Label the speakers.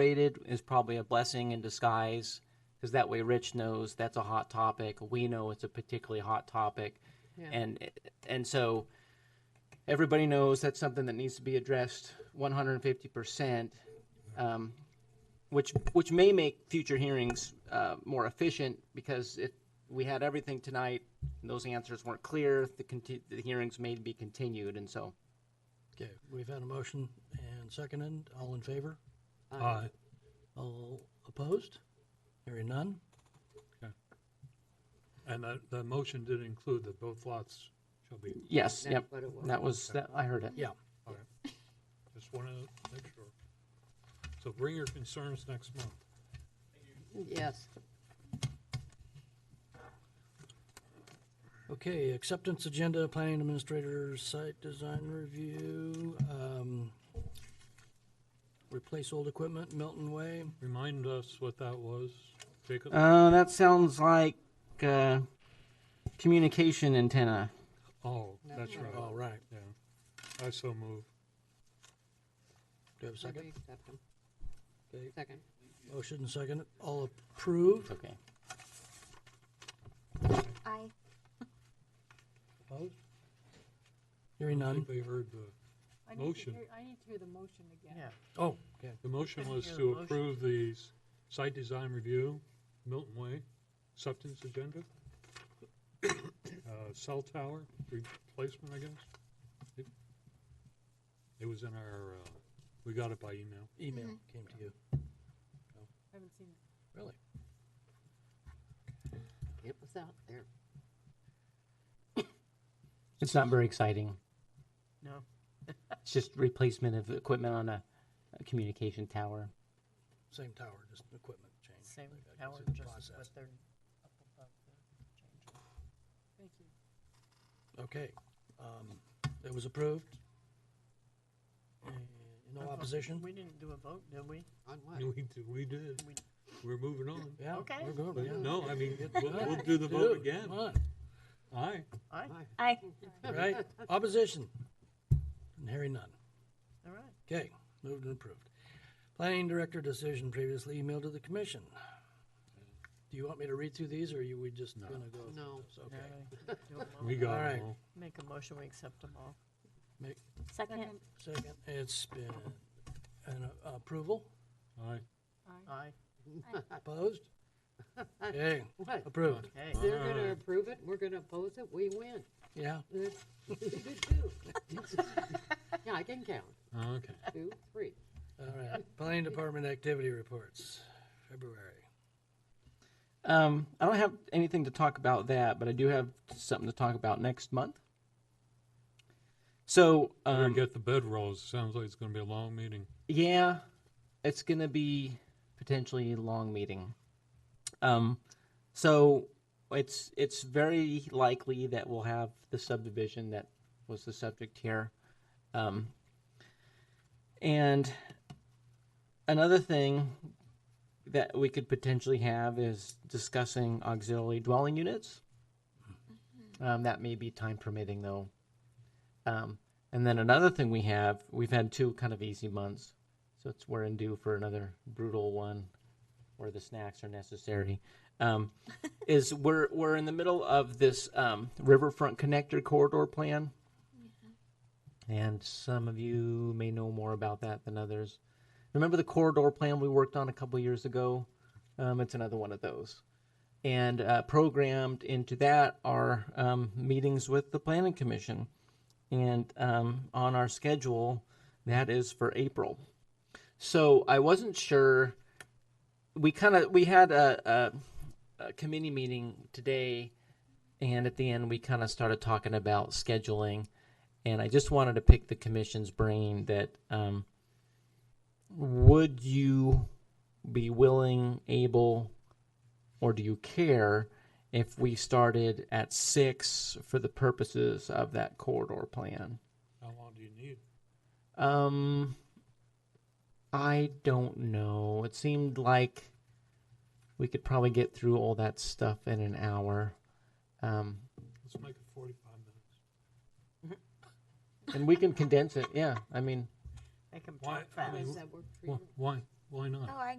Speaker 1: rated is probably a blessing in disguise because that way Rich knows that's a hot topic. We know it's a particularly hot topic,
Speaker 2: Yeah.
Speaker 1: and and so everybody knows that's something that needs to be addressed 150 percent, um, which which may make future hearings uh, more efficient because if we had everything tonight and those answers weren't clear, the, conti- the hearings may be continued, and so.
Speaker 3: Okay, we've had a motion and seconded. All in favor?
Speaker 4: Aye.
Speaker 3: All opposed? Hearing none?
Speaker 4: And the, the motion did include that both lots shall be,
Speaker 1: Yes,
Speaker 2: That's
Speaker 1: yep.
Speaker 2: what it was.
Speaker 1: That was, that, I heard it.
Speaker 3: Yeah.
Speaker 4: all right. Just wanted to make sure. So bring your concerns next month.
Speaker 2: Yes.
Speaker 3: Okay, acceptance agenda, planning administrator, site design review, um, replace old equipment, Milton Way.
Speaker 4: Remind us what that was, Jacob?
Speaker 1: Uh, that sounds like uh, communication antenna.
Speaker 4: Oh, that's right.
Speaker 3: All right,
Speaker 4: Yeah. I so move.
Speaker 3: do you have a
Speaker 2: Second.
Speaker 3: second? Okay,
Speaker 2: Second.
Speaker 3: motion and second. All approved?
Speaker 1: Okay.
Speaker 5: Aye.
Speaker 4: Opposed?
Speaker 3: Hearing
Speaker 4: I think
Speaker 3: none?
Speaker 4: they heard the,
Speaker 6: I need to
Speaker 4: Motion.
Speaker 6: hear- I need to hear the motion again.
Speaker 3: Oh, okay.
Speaker 4: the motion was
Speaker 6: hear the
Speaker 4: to
Speaker 6: motion.
Speaker 4: approve the s- site design review, Milton Way, acceptance agenda, uh, cell tower replacement, I guess. It- It was in our, uh, we got it by email.
Speaker 3: Email came to you.
Speaker 6: I haven't seen it.
Speaker 3: Really?
Speaker 2: It was out there.
Speaker 1: It's not very exciting.
Speaker 6: No.
Speaker 1: It's just replacement of equipment on a, a communication tower.
Speaker 3: Same tower, just equipment change.
Speaker 7: Same
Speaker 3: Like, I can
Speaker 7: power,
Speaker 3: see the
Speaker 7: just
Speaker 3: process.
Speaker 7: what they're up above the change.
Speaker 6: Thank you.
Speaker 3: Okay, um, it was approved. Uh, No opposition?
Speaker 7: We didn't do a vote, did we?
Speaker 2: On what?
Speaker 4: And we, d- we did.
Speaker 7: We-
Speaker 4: We're moving on.
Speaker 3: Yeah,
Speaker 7: Okay.
Speaker 3: we're good,
Speaker 4: But
Speaker 3: yeah.
Speaker 4: No, I mean,
Speaker 3: Get
Speaker 4: we'll,
Speaker 3: done.
Speaker 4: we'll do the
Speaker 3: Do
Speaker 4: vote
Speaker 3: it,
Speaker 4: again.
Speaker 3: come on,
Speaker 4: Aye.
Speaker 7: Aye,
Speaker 5: Aye.
Speaker 3: Right, opposition? And hearing none.
Speaker 7: all right.
Speaker 3: Okay, moved and approved. Planning director decision previously emailed to the commission. Do you want me to read through these, or are you, we just
Speaker 4: No.
Speaker 3: gonna go? through
Speaker 2: No.
Speaker 3: those? Okay,
Speaker 7: Now do a
Speaker 4: We
Speaker 7: vote.
Speaker 4: got
Speaker 3: All right.
Speaker 4: it all.
Speaker 7: Make a motion, we accept them all.
Speaker 3: make,
Speaker 5: Second.
Speaker 3: second, it's been an approval,
Speaker 4: Aye.
Speaker 6: Aye.
Speaker 7: Aye,
Speaker 3: opposed? Okay,
Speaker 2: What?
Speaker 3: approved,
Speaker 7: okay.
Speaker 2: They're gonna
Speaker 4: Aye.
Speaker 2: approve it, we're gonna oppose it, we win.
Speaker 3: yeah.
Speaker 2: That's good too. Yeah, I can count.
Speaker 4: Okay.
Speaker 2: Two, three.
Speaker 3: All right, planning department activity reports, February.
Speaker 1: Um, I don't have anything to talk about that, but I do have something to talk about next month. So,
Speaker 4: Better
Speaker 1: um,
Speaker 4: get the bed rolls. Sounds like it's gonna be a long meeting.
Speaker 1: Yeah, it's going to be potentially a long meeting. Um, so it's it's very likely that we'll have the subdivision that was the subject here. Um, and another thing that we could potentially have is discussing auxiliary dwelling units. Um, that may be time permitting though. Um, and then another thing we have, we've had two kind of easy months, so it's we're in due for another brutal one, where the snacks are necessary. Um, is we're we're in the middle of this um, riverfront connector corridor plan, and some of you may know more about that than others. Remember the corridor plan we worked on a couple years ago? Um, it's another one of those. And uh, programmed into that are um, meetings with the planning commission and um, on our schedule that is for april so i wasn't sure we kind of we had a, a, a committee meeting today and at the end we kind of started talking about scheduling and i just wanted to pick the commission's brain that um, would you be willing able or do you care if we started at six for the purposes of that corridor plan?
Speaker 4: How long do you need?
Speaker 1: Um, I don't know. It seemed like we could probably get through all that stuff in an hour. Um,
Speaker 4: Let's make it forty-five minutes.
Speaker 1: and we can condense it. Yeah. I mean,
Speaker 7: Make them
Speaker 4: Why-
Speaker 7: talk fast.
Speaker 4: mean,
Speaker 2: Does that work for
Speaker 4: Why,
Speaker 2: you?
Speaker 4: why,
Speaker 8: Why not?
Speaker 4: Oh, I